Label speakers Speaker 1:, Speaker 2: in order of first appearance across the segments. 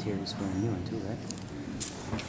Speaker 1: to swear a new one too, right?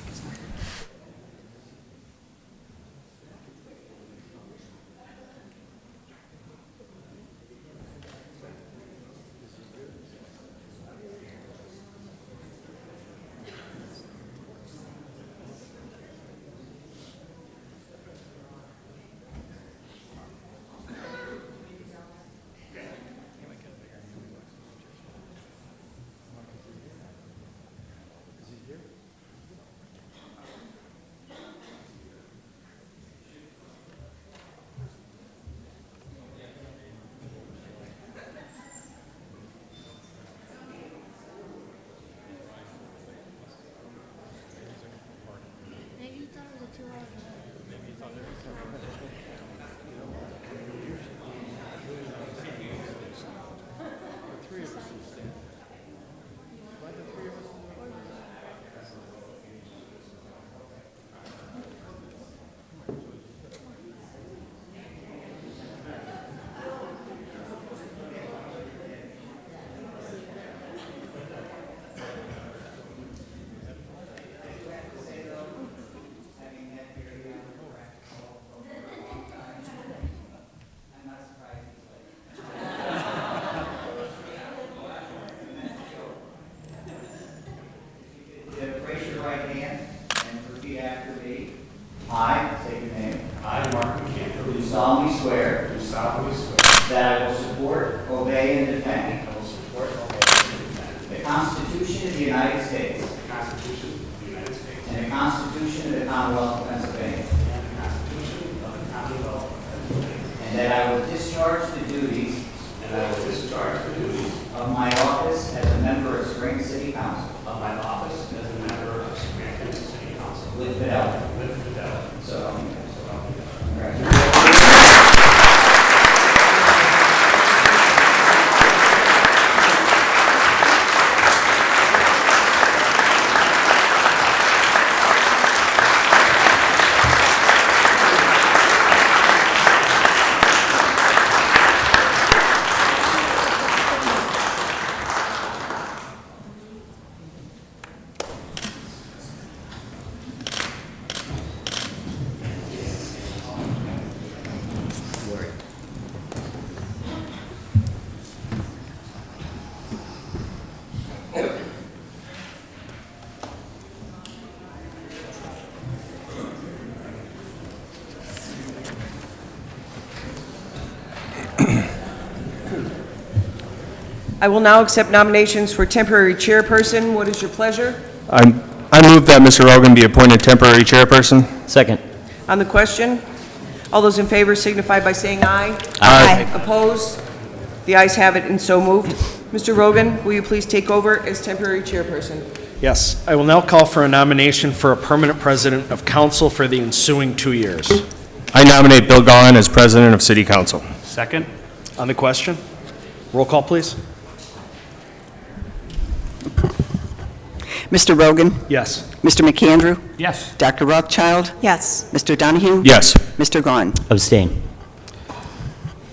Speaker 2: Maybe you thought it was a two hour.
Speaker 3: Yeah, Raise your right hand and repeat after me. I, say your name,
Speaker 4: I, Mark McCann,
Speaker 3: do solemnly swear
Speaker 4: do solemnly swear
Speaker 3: that I will support, obey, and defend
Speaker 4: I will support, obey, and defend
Speaker 3: the Constitution of the United States
Speaker 4: the Constitution of the United States
Speaker 3: and the Constitution of the Commonwealth of Pennsylvania,
Speaker 4: and the Constitution of the Commonwealth of Pennsylvania,
Speaker 3: and that I will discharge the duties
Speaker 4: and I will discharge the duties
Speaker 3: of my office as a member of Spring City Council
Speaker 4: of my office as a member of Scranton City Council
Speaker 3: with fidelity.
Speaker 4: with fidelity.
Speaker 3: So help me God.
Speaker 4: So help me God.
Speaker 3: Congratulations.
Speaker 5: I will now accept nominations for temporary chairperson. What is your pleasure?
Speaker 6: I'm- I move that Mr. Rogan be appointed temporary chairperson.
Speaker 1: Second.
Speaker 5: On the question, all those in favor signify by saying aye.
Speaker 6: Aye.
Speaker 5: Opposed? The ayes have it and so moved. Mr. Rogan, will you please take over as temporary chairperson?
Speaker 7: Yes, I will now call for a nomination for a permanent president of council for the ensuing two years.
Speaker 6: I nominate Bill Gallen as president of city council.
Speaker 7: Second. On the question? Roll call, please.
Speaker 8: Mr. Rogan,
Speaker 7: Yes.
Speaker 8: Mr. McAndrew,
Speaker 7: Yes.
Speaker 8: Dr. Rothschild,
Speaker 5: Yes.
Speaker 8: Mr. Donahue,
Speaker 6: Yes.
Speaker 8: Mr. Gahn.
Speaker 1: Abstain.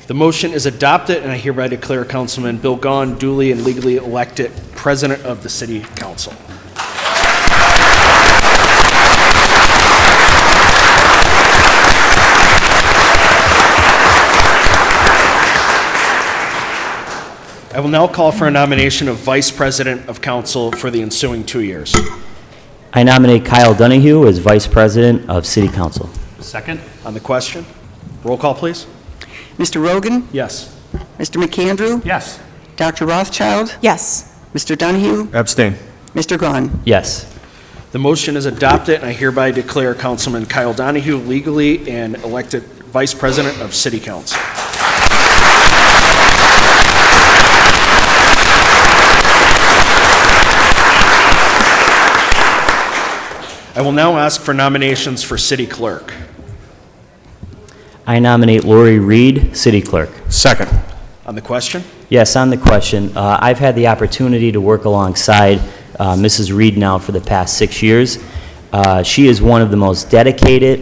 Speaker 7: The motion is adopted, and I hereby declare Councilman Bill Gahn duly and legally elected president of the city council. I will now call for a nomination of vice president of council for the ensuing two years.
Speaker 1: I nominate Kyle Donahue as Vice President of City Council.
Speaker 7: Second. On the question, roll call, please.
Speaker 8: Mr. Rogan,
Speaker 7: Yes.
Speaker 8: Mr. McAndrew,
Speaker 7: Yes.
Speaker 8: Dr. Rothschild,
Speaker 5: Yes.
Speaker 8: Mr. Donahue,
Speaker 6: Abstain.
Speaker 8: Mr. Gahn.
Speaker 1: Yes.
Speaker 7: The motion is adopted, and I hereby declare Councilman Kyle Donahue legally and elected Vice President of City Council. I will now ask for nominations for City Clerk.
Speaker 1: I nominate Lori Reed, City Clerk.
Speaker 6: Second.
Speaker 7: On the question?
Speaker 1: Yes, on the question, uh, I've had the opportunity to work alongside uh, Mrs. Reed now for the past six years. Uh, She is one of the most dedicated